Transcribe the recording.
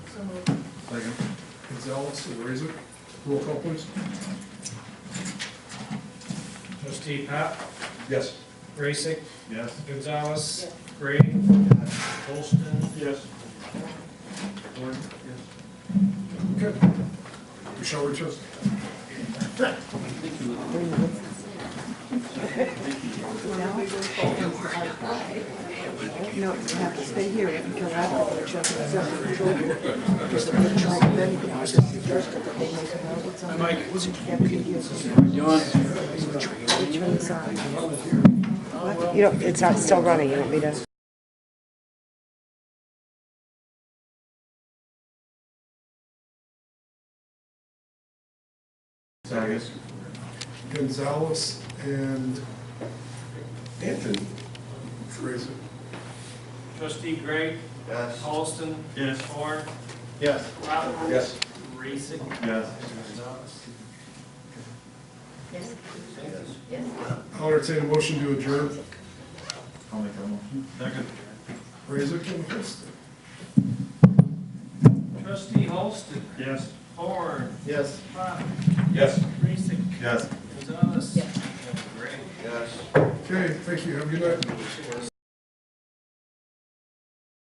So moved. Second. Gonzalez, Razor, roll call please. Trustee Pat, Yes. Racick, Yes. Gonzalez, Yes. Gray, Holston, Yes. Warren? Yes. Okay. Michelle Richards? No, you have to stay here until after the check is out. Just a bit of time, then you can ask the judge to put the notice on it. Which one's on? What? You don't, it's not still running, you don't need us. Second. Gonzalez and Anthony Razor? Trustee Gray, Yes. Holston, Yes. Horn, Yes. Rappel. Yes. Racick, Yes. Gonzalez. Yes. Yes. Yes. I'll entertain a motion to adjourn. I'll make that motion. Second. Razor, Kim Holston? Trustee Holston, Yes. Horn, Yes. Pop, Yes. Racick, Yes. Gonzalez. Yes. Gray. Okay, thank you, have a good night.